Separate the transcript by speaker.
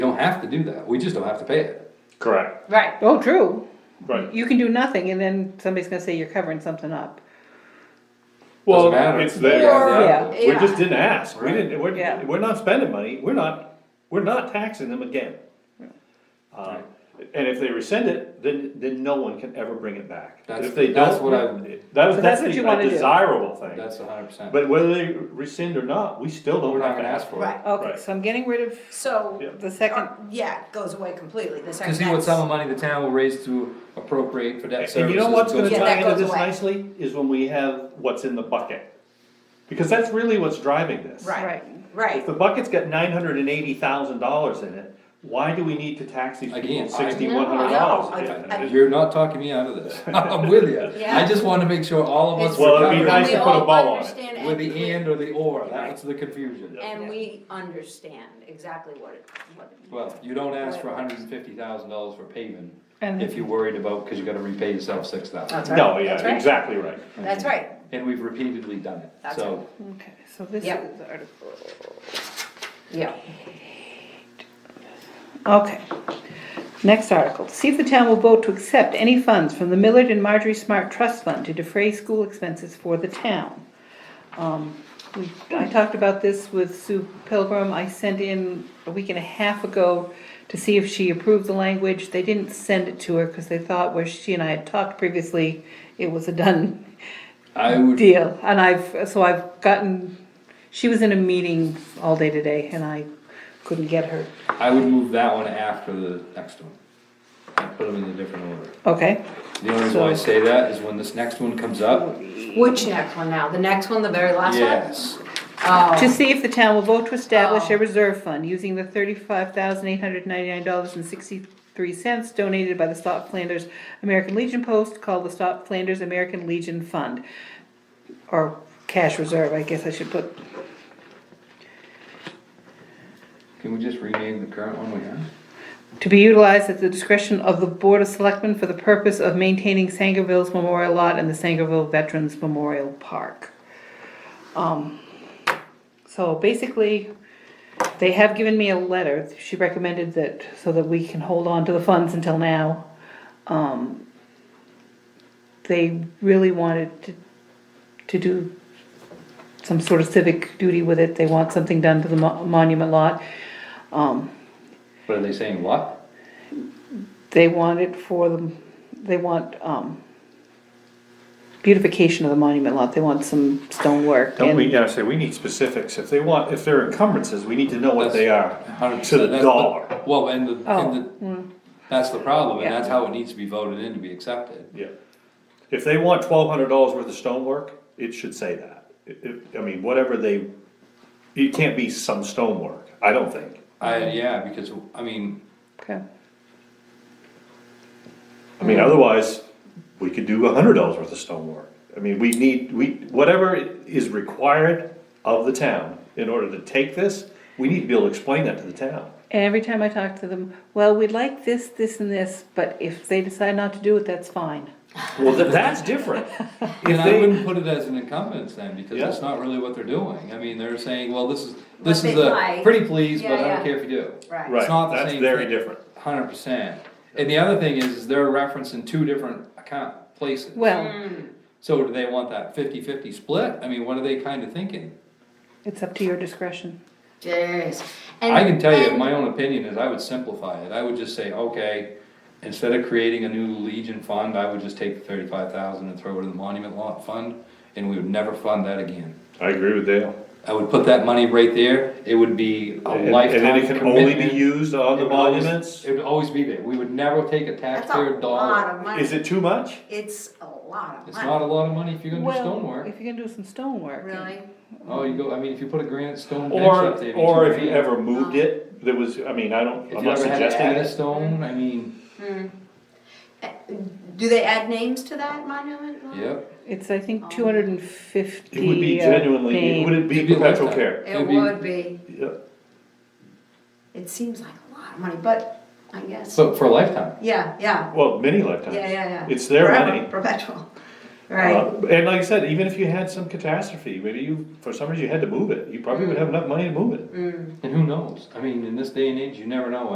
Speaker 1: have to do that, we just don't have to pay it.
Speaker 2: Correct,
Speaker 3: Right,
Speaker 4: Oh, true.
Speaker 2: right.
Speaker 4: You can do nothing and then somebody's gonna say you're covering something up.
Speaker 2: Well,
Speaker 1: matter.
Speaker 2: it's
Speaker 1: Yeah,
Speaker 2: there.
Speaker 4: yeah.
Speaker 3: or,
Speaker 2: We just
Speaker 3: yeah,
Speaker 2: didn't ask. We
Speaker 1: Right.
Speaker 2: didn't,
Speaker 4: Yeah.
Speaker 2: we're, we're not spending money. We're not, we're not taxing them again. Uh, And if they rescind it, then, then no one can ever bring it back.
Speaker 1: That's-
Speaker 2: If they don't.
Speaker 1: that's what I-
Speaker 2: That was,
Speaker 4: So
Speaker 2: that's
Speaker 4: that's what
Speaker 2: the
Speaker 4: you
Speaker 2: a
Speaker 4: wanna do.
Speaker 2: desirable thing.
Speaker 1: That's hundred percent.
Speaker 2: But whether they rescind or not, we still
Speaker 1: We're
Speaker 2: don't
Speaker 1: not
Speaker 2: have to
Speaker 1: gonna
Speaker 2: ask
Speaker 1: ask
Speaker 2: for
Speaker 1: for it.
Speaker 3: right.
Speaker 4: Okay,
Speaker 2: Right.
Speaker 4: so I'm getting rid of
Speaker 3: So,
Speaker 2: Yeah.
Speaker 4: the second,
Speaker 3: or- yeah, it goes away completely, the second.
Speaker 1: Cause see what sum of money the town will raise to appropriate for debt
Speaker 2: it.
Speaker 1: services.
Speaker 2: And you know what's gonna
Speaker 1: goes-
Speaker 3: Yeah, that
Speaker 2: tie into
Speaker 3: goes
Speaker 2: this
Speaker 3: away.
Speaker 2: nicely, is when we have what's in the bucket. Because that's really what's driving this.
Speaker 3: Right,
Speaker 4: Right.
Speaker 2: If
Speaker 3: right,
Speaker 2: the bucket's got nine hundred and eighty thousand dollars in it, why do we need to tax these people
Speaker 1: Again, I-
Speaker 2: sixty-one hundred
Speaker 3: No,
Speaker 2: dollars?
Speaker 3: I- I-
Speaker 1: You're not talking me out of this, I'm with you, I
Speaker 5: Yeah.
Speaker 1: just wanna make sure all of us.
Speaker 5: It's-
Speaker 2: Well, it'd be
Speaker 1: recover
Speaker 2: nice to
Speaker 5: we
Speaker 2: put a
Speaker 5: all
Speaker 2: bow on it.
Speaker 5: understand
Speaker 1: With the E
Speaker 5: we-
Speaker 1: and or the or, that's the confusion.
Speaker 5: And we understand exactly what it, what.
Speaker 1: Well, you don't ask for hundred and fifty thousand dollars for paving
Speaker 4: And-
Speaker 1: if you're worried about, cause you gotta repay yourself six
Speaker 3: That's right.
Speaker 1: thousand.
Speaker 2: No, yeah,
Speaker 3: That's right.
Speaker 2: exactly right.
Speaker 5: That's right,
Speaker 1: And we've repeatedly done it,
Speaker 5: Oh. That's
Speaker 1: so,
Speaker 4: okay, so this
Speaker 3: Yep.
Speaker 4: is article,
Speaker 3: yeah.
Speaker 4: okay. Next article, see if the town will vote to accept any funds from the Millard and Marjorie Smart Trust Fund to defray school expenses for the town. Um, we, I talked about this with Sue Pilgrim, I sent in a week and a half ago to see if she approved the language, they didn't send it to her, cause they thought where she and I had talked previously, it was a done
Speaker 1: I would.
Speaker 4: deal, and I've, so I've gotten, she was in a meeting all day today, and I couldn't get her.
Speaker 1: I would move that one after the next one. And put them in a different order.
Speaker 4: Okay,
Speaker 1: The only reason why I
Speaker 4: So-
Speaker 1: say that is when this next one comes up,
Speaker 3: Which next one now, the next one, the very last one?
Speaker 1: yes,
Speaker 4: to
Speaker 3: Oh,
Speaker 4: see if the town will vote to establish
Speaker 3: Oh.
Speaker 4: a reserve fund using the thirty-five thousand eight hundred ninety-nine dollars and sixty-three cents donated by the Stop Flanders American Legion Post called the Stop Flanders American Legion Fund. Or cash reserve, I guess I should put,
Speaker 1: can we just rename the current one we have?
Speaker 4: to be utilized at the discretion of the Board of Selectmen for the purpose of maintaining Sangerville's Memorial Lot and the Sangerville Veterans Memorial Park. Um, so basically, they have given me a letter, she recommended that, so that we can hold on to the funds until now. Um, they really wanted to, to do some sort of civic duty with it, they want something done to the mo- monument lot. Um,
Speaker 1: What are they saying, what?
Speaker 4: they want it for the, they want, um, beautification of the monument lot, they want some stonework.
Speaker 2: Don't
Speaker 4: and-
Speaker 2: we, yeah, say, we need specifics. If they want, if they're encumbrances, we need to know what they are.
Speaker 1: 100%.
Speaker 2: To the
Speaker 1: That's
Speaker 2: dollar.
Speaker 1: Well, and the,
Speaker 4: Oh,
Speaker 1: and the, that's the problem, and
Speaker 4: Yeah.
Speaker 1: that's how it needs to be voted in to be accepted.
Speaker 2: Yeah. If they want twelve hundred dollars worth of stonework, it should say that. It- it- I mean, whatever they, it can't be some stonework, I don't think.
Speaker 1: I, yeah, because, I mean,
Speaker 4: Okay,
Speaker 2: I mean, otherwise, we could do a hundred dollars worth of stonework. I mean, we need, we, whatever is required of the town in order to take this, we need to be able to explain that to the town.
Speaker 4: and every time I talk to them, well, we'd like this, this and this, but if they decide not to do it, that's fine.
Speaker 2: Well, tha- that's different.
Speaker 1: and I
Speaker 2: they-
Speaker 1: wouldn't put it as an incumbents then, because
Speaker 2: Yeah.
Speaker 1: that's not really what they're doing. I mean, they're saying, well, this is, this
Speaker 5: they
Speaker 1: is a,
Speaker 5: like.
Speaker 1: pretty please, but
Speaker 5: Yeah,
Speaker 1: I don't
Speaker 5: yeah.
Speaker 1: care if you do.
Speaker 5: right.
Speaker 2: Right,
Speaker 1: not the
Speaker 2: that's
Speaker 1: same
Speaker 2: very
Speaker 1: thing.
Speaker 2: different.
Speaker 1: Hundred percent. And the other thing is, is they're referencing two different account places.
Speaker 4: Well,
Speaker 1: So do they want that 50-50 split? I mean, what are they kinda thinking?
Speaker 4: it's up to your discretion.
Speaker 5: Jeez. And-
Speaker 1: I can tell you,
Speaker 5: and-
Speaker 1: my own opinion is I would simplify it. I would just say, okay, instead of creating a new Legion fund, I would just take the thirty-five thousand and throw it in the monument lot fund, and we would never fund that again.
Speaker 2: I agree with Dale.
Speaker 1: I would put that money right there. It would be a
Speaker 2: And and then
Speaker 1: lifetime
Speaker 2: it can only be
Speaker 1: commitment.
Speaker 2: used on
Speaker 1: It
Speaker 2: the
Speaker 1: would always-
Speaker 2: monuments?
Speaker 1: It would always be there. We would never take a
Speaker 5: That's a
Speaker 1: taxpayer
Speaker 5: lot
Speaker 1: dollar.
Speaker 5: of money.
Speaker 2: Is it too much?
Speaker 5: It's a lot of
Speaker 1: It's not
Speaker 5: money,
Speaker 1: a lot of money if you're gonna do
Speaker 4: Well,
Speaker 1: stonework.
Speaker 4: If you're gonna do some stonework.
Speaker 5: really.
Speaker 1: Oh, you go, I mean, if you put a granite stone bench
Speaker 2: Or,
Speaker 1: up there.
Speaker 2: or if
Speaker 1: can't-
Speaker 2: you ever moved it, there was, I mean, I don't,
Speaker 1: If
Speaker 2: I'm
Speaker 1: you
Speaker 2: not
Speaker 1: ever had to
Speaker 2: suggesting
Speaker 1: add a
Speaker 2: it.
Speaker 1: stone, I mean,
Speaker 5: Do they add names to that monument? lot?
Speaker 1: yep.
Speaker 4: It's, I think, two hundred and fifty. uh,
Speaker 2: It would be genuinely, it wouldn't be
Speaker 1: It'd be
Speaker 2: perpetual
Speaker 1: lifetime.
Speaker 2: care.
Speaker 5: It
Speaker 1: It'd be-
Speaker 5: would be,
Speaker 2: Yeah.
Speaker 5: it seems like a lot of money, but I guess,
Speaker 1: So for a lifetime,
Speaker 5: yeah, yeah,
Speaker 2: Well, many
Speaker 5: yeah,
Speaker 2: lifetimes.
Speaker 5: yeah, yeah.
Speaker 2: It's their
Speaker 5: Forever,
Speaker 2: money.
Speaker 5: Perpetual,
Speaker 2: Uh,
Speaker 5: right,
Speaker 2: And like I said, even if you had some catastrophe, maybe you, for some reason you had to move it, you probably would have enough money to move it.
Speaker 5: mm.
Speaker 1: and who knows? I mean, in this day and age, you never know